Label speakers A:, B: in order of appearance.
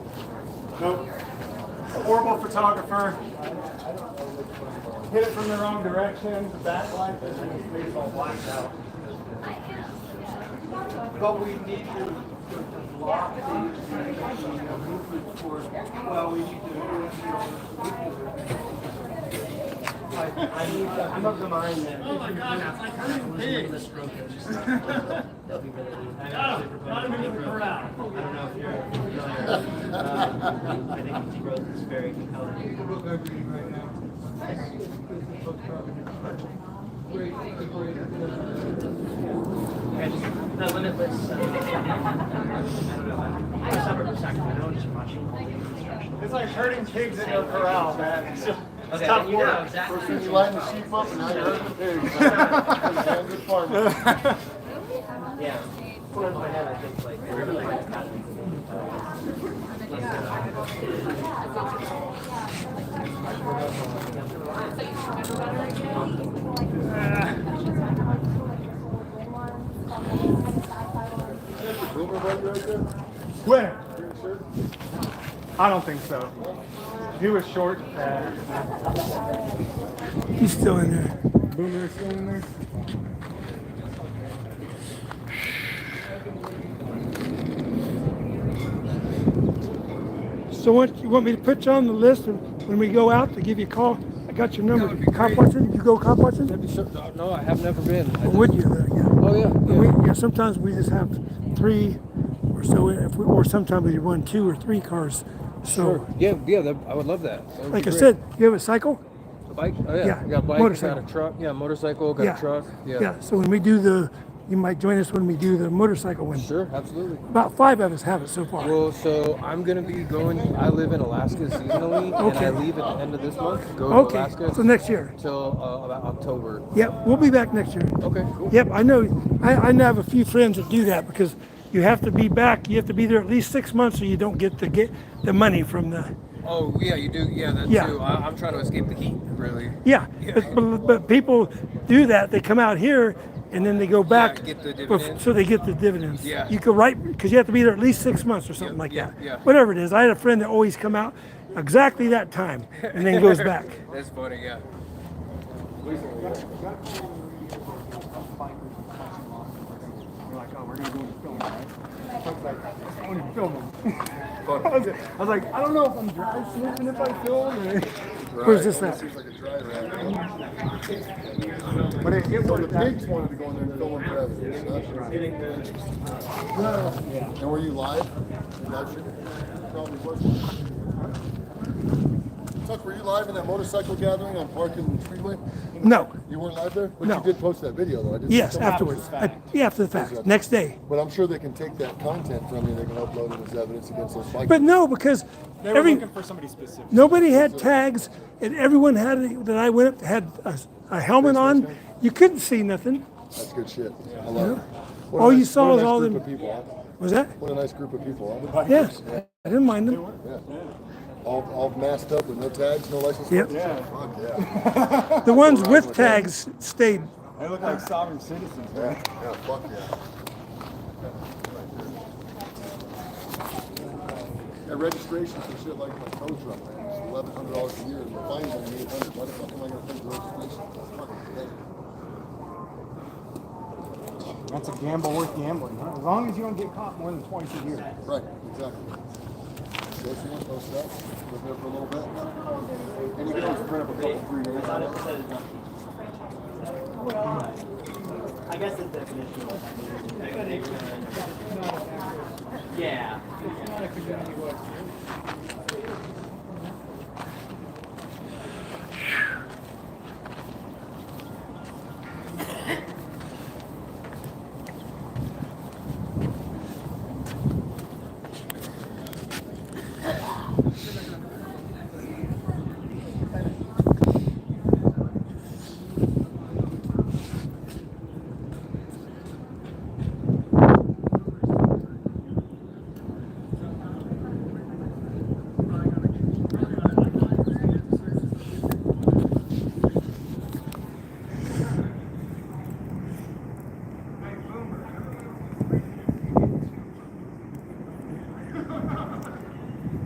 A: Nope. Horrible photographer. Hit it from the wrong direction. The backlight doesn't make all blacked out.
B: But we need to to block these things, you know, movement towards, well, we need to. I, I need to, I'm of the mind that. Oh my god, that's like hurting pigs. Oh, That'll be really neat. I know it's
C: not even in the
B: different.
C: crowd.
B: I don't know if you're familiar. Uh, I think his growth is very compelling. And the limitless, uh, I don't know, I'm a suburb of Sacramento, just watching all the construction.
A: It's like herding pigs in a corral, man. It's just- it's
B: Okay,
A: tough
B: you know
A: work.
B: exactly.
D: First thing you line the sheep up and now you're hurting the pigs. Damn good farmer.
B: Yeah. Well, in my head, I think like the river like happening.
D: Boomer buddy right there.
A: Winner.
D: Green shirt.
A: I don't think so. He was short Uh, and fat.
C: He's still in there.
A: Boomer still in there.
C: So what, you want me to put you on the list and when we go out to give you a call? I got your number.
E: That would be
C: Cop
E: great.
C: watching? You go cop watching?
E: That'd be so, no, no, I have never been. I
C: Or Would you? There, yeah.
E: Oh, yeah.
C: But We, yeah, sometimes we just have three or so, if we, or sometimes we run two or three cars. So,
E: Sure. Yeah, yeah, that, I would love that. That would be
C: like I
E: great.
C: said, you have a cycle?
E: A bike? Oh, yeah.
C: yeah,
E: I got a bike,
C: motorcycle.
E: got a truck. Yeah, motorcycle, got
C: Yeah.
E: a truck. Yeah.
C: So when we do the, you might join us when we do the motorcycle one.
E: Sure, absolutely.
C: About five of us have it so far.
E: Well, so I'm going to be going, I live in Alaska seasonally,
C: Okay.
E: and I leave at the end of this month, go to
C: Okay,
E: Alaska
C: so next year.
E: until uh, about October.
C: Yep, we'll be back next year.
E: Okay, cool.
C: Yep, I know, I, I know have a few friends that do that because you have to be back, you have to be there at least six months or you don't get the, get the money from the,
E: Oh, yeah, you do. Yeah, that
C: Yeah.
E: too. I, I'm trying to escape the heat, really.
C: yeah.
E: Yeah.
C: But, but, but people do that, they come out here and then they go back.
E: get the
C: bef-
E: dividends.
C: So they get the dividends.
E: Yeah.
C: You could write, because you have to be there at least six months or something
E: Yeah,
C: like
E: yeah,
C: that.
E: yeah.
C: Whatever it is, I had a friend that always come out exactly that time and then goes back.
E: That's funny, yeah.
A: We're like, oh, we're gonna go and film, right? I was like, I want to film him.
E: Fun.
A: I was I was like, I don't know if I'm dry sniffing if I film or.
C: Where's this at?
D: Seems like a dry rat.
A: But it, it
D: So the
A: worked out.
D: pigs wanted to go in there and film them forever. And were you live? You live streaming? Probably was. Tuck, were you live in that motorcycle gathering on Park and Freeway?
C: No,
D: You weren't live there? But
C: No.
D: you did post that video though. I did see
C: yes,
D: some of it.
C: afterwards. I- Yeah, after the fact, next day.
D: But I'm sure they can take that content from you, they can upload it as evidence against those bikers.
C: But no, because
A: They were
C: every,
A: looking for somebody specific.
C: Nobody had tags, and everyone had it- that I went up had a, a helmet on. You couldn't see nothing.
D: That's good shit. I love it. What a
C: All Oh, you
D: nice-
C: saw
D: what a
C: was
D: nice
C: all
D: group
C: them-
D: of people, huh?
C: Was that?
D: What a nice group of people, huh?
C: Yeah, I didn't mind them.
D: Yeah. All, all masked up with no tags, no license.
C: Yep.
D: plates? Fuck yeah.
C: The ones with tags stayed.
A: They look like sovereign citizens, man.
D: Yeah, yeah, fuck yeah. Yeah, registration for shit like my tow truck, man, it's eleven hundred dollars a year, and the fine's only eight hundred, why the fuck am I gonna pay for registration? It's fucking crazy.
A: That's a gamble worth gambling. Huh? As long as you don't get caught more than twice a year.
D: Right, exactly. So if you want those stuff, live there for a little bit. And you can always print up a couple free minutes on it.
B: I guess the definition of. Yeah.